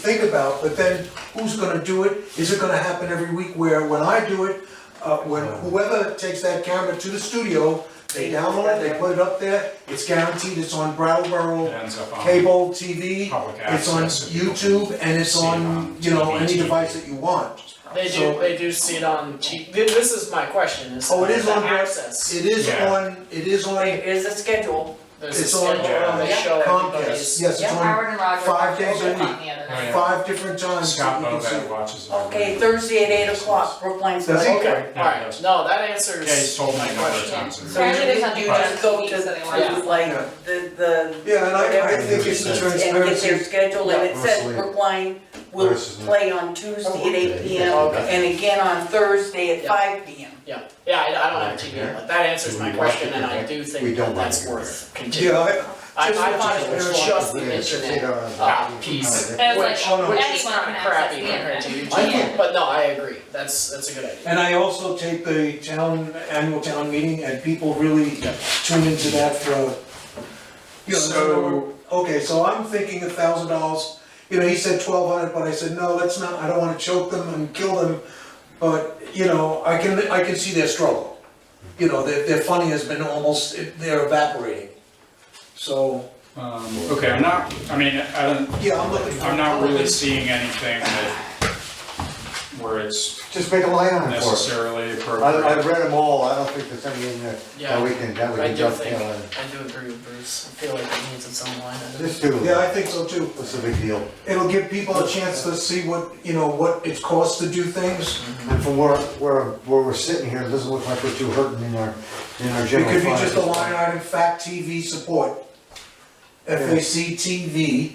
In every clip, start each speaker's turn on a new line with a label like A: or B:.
A: think about, but then who's gonna do it? Is it gonna happen every week where when I do it, uh, when whoever takes that camera to the studio, they download it, they put it up there, it's guaranteed it's on
B: It
A: Brattleboro
B: ends up on.
A: cable TV,
B: Public
A: it's on
B: access, and people
A: YouTube, and it's
B: see it
A: on,
B: on
A: you know, any
B: TV.
A: device that you want.
C: They do,
A: So-
C: they do see it on, T- thi- this is my question, is
A: Oh, it is
C: the
A: on-
C: access.
A: It is
B: Yeah.
A: on, it is on
D: It is a schedule.
C: There's a
A: it's on,
C: schedule where they
D: uh,
C: show
A: Comcast,
C: everybody's.
A: yes, it's
D: Yeah.
A: on
E: Howard and Roger
A: five
E: watched
A: days a week.
E: Oprah the other
B: Oh,
E: night.
B: yeah.
A: five different times that
B: Scott
A: we can see.
B: Bobette watches it.
D: Okay, Thursday at eight o'clock, Brookline
A: That's
D: Select
A: okay.
D: Board.
B: Yeah,
C: Alright,
B: yes.
C: no, that
B: Yeah,
C: answers.
B: he's told me a
C: my
B: number of
C: question.
B: times.
D: So you,
E: Saturdays and
D: you
E: Fridays.
D: just go to,
E: Yeah.
D: to like
A: Yeah.
D: the, the,
A: Yeah, and I, I
D: Whatever.
A: think it's the
D: and get their
A: transparency,
D: schedule, and it says
F: Mostly.
D: Brookline will
F: Versus the-
D: play on Tuesday at eight P
A: Oh,
D: M.
C: Okay.
D: And again on Thursday at
C: Yeah.
D: five P M.
C: Yeah, yeah, I, I don't have TV, but that answers
F: Do
C: my
F: we watch
C: question,
F: it
C: and I
F: direct?
C: do
F: We
C: think
F: don't
C: that that's
F: watch it
C: worth
A: yeah,
C: continuing.
A: I,
C: I,
A: Just
C: I
A: watch
C: thought
A: it
C: it was
A: direct.
C: just the
F: Yeah, it's just
C: internet,
F: eight hours.
C: uh, piece,
F: Yeah.
C: which,
E: And
C: which
E: it's
C: is
E: like, oh,
C: kind
E: no.
C: of
E: anyone can
C: crappy compared
E: access
C: to
E: the internet.
C: YouTube,
E: Yeah.
C: but no, I agree, that's, that's a good idea.
A: And I also take the town, annual town meeting, and people really tune into that for, you know,
B: So-
A: so, okay, so I'm thinking a thousand dollars, you know, he said twelve hundred, but I said, no, let's not, I don't wanna choke them and kill them, but, you know, I can, I can see their struggle. You know, their, their funding has been almost, they're evaporating. So,
B: Um, okay, I'm not, I mean, I don't,
A: yeah, I'm looking for.
B: I'm not really seeing anything that, where it's
F: Just make a line on it for it.
B: necessarily
F: I, I
B: appropriate.
F: read them all, I don't think there's anything in there
C: Yeah.
F: that we can, that we
C: I
F: can
C: do think-
F: dovetail in.
C: I do agree with Bruce, I feel like it needs its own line item.
F: Just do
A: Yeah,
F: it,
A: I think so too.
F: what's the big deal?
A: It'll give people a chance to see what, you know, what it costs to do things.
F: And from where, where, where we're sitting here, it doesn't look like we're too hurting in our, in our
A: It
F: general
A: could be
F: fund.
A: just a line item, fact TV support. FAC TV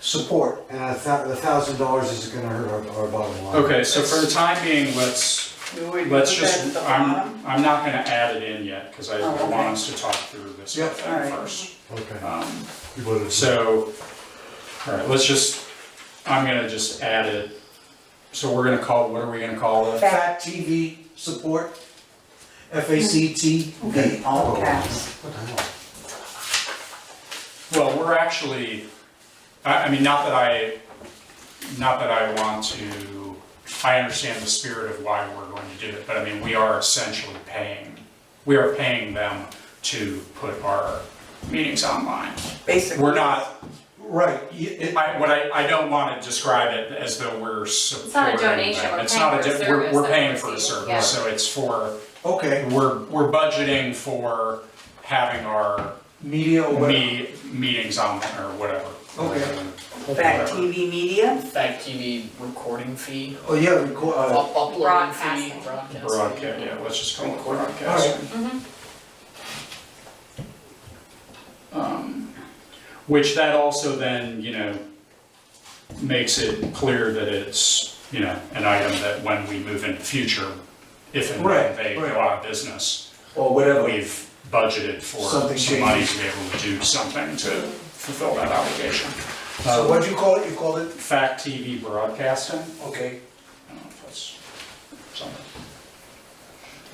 A: support.
F: And a thou, the thousand dollars isn't gonna hurt our, our bottom line.
B: Okay, so for the time being, let's, let's just, I'm, I'm not gonna add it in yet, cause I
D: Oh,
B: I
D: okay.
B: want us to talk through this
A: Yep.
B: with them
D: Alright.
B: first.
F: Okay.
B: Um, So, all right, let's just, I'm gonna just add it, so we're gonna call, what are we gonna call it?
A: Fact TV support. FAC TV.
D: All caps.
F: What the hell?
B: Well, we're actually, I, I mean, not that I, not that I want to, I understand the spirit of why we're going to do it, but I mean, we are essentially paying, we are paying them to put our meetings online.
D: Basically.
B: We're not,
A: Right, y- it-
B: I, what I, I don't wanna describe it as though we're
E: not
B: supporting
E: a donation,
B: them.
E: we're
B: It's
E: paying
B: not a
E: for a
B: di- we're-
E: service
B: We're
E: that
B: paying
E: we're
B: for a
E: receiving,
B: service, so it's for,
A: okay,
B: we're, we're budgeting for having our
A: media or whatever.
B: me, meetings on or whatever.
A: Okay.
D: Fact TV media,
C: Fact TV recording fee,
A: Oh, yeah, record, uh,
C: up- uploading fee,
E: Broadcasting.
C: broadcasting.
B: Broadcast, yeah, let's just call it broadcasting.
A: Mm-hmm.
B: Um, Which that also then, you know, makes it clear that it's, you know, an item that when we move into future, if and when
A: Right,
B: they go
A: right.
B: out of business,
A: or whatever.
B: we've budgeted for
A: Something
B: some money to be able to do something to fulfill that obligation. Uh,
A: So Uh, what'd you call it? You called it,
B: Fact TV broadcasting?
A: okay.
B: I don't know if that's something.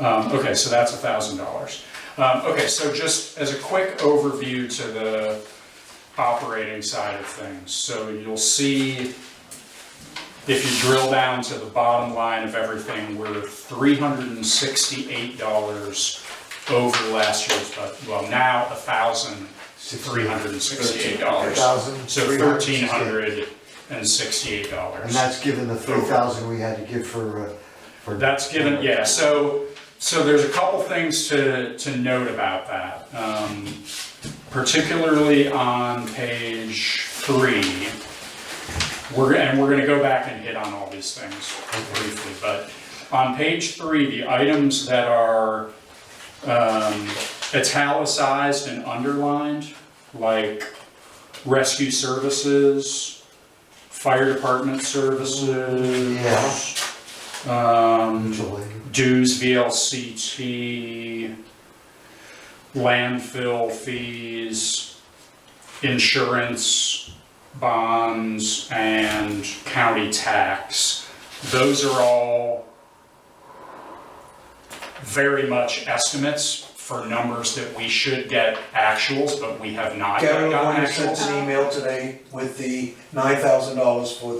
B: Um, okay, so that's a thousand dollars. Um, okay, so just as a quick overview to the operating side of things, so you'll see if you drill down to the bottom line of everything, we're three hundred and sixty-eight dollars over last year's, but, well, now a thousand, three hundred and sixty-eight dollars.
F: $1,368.
B: So thirteen hundred and sixty-eight dollars.
F: And that's given the three thousand we had to give for, uh, for.
B: That's given, yeah, so, so there's a couple things to, to note about that. Um, Particularly on page three, we're, and we're gonna go back and hit on all these things briefly, but on page three, the items that are um, italicized and underlined, like rescue services, fire department services. Um,
F: Julie.
B: dues, VLCT, landfill fees, insurance, bonds, and county tax. Those are all very much estimates for numbers that we should get actuals, but we have not yet
A: Gavin
B: gotten
A: Lewis
B: actuals.
A: sent an email today with the nine thousand dollars for the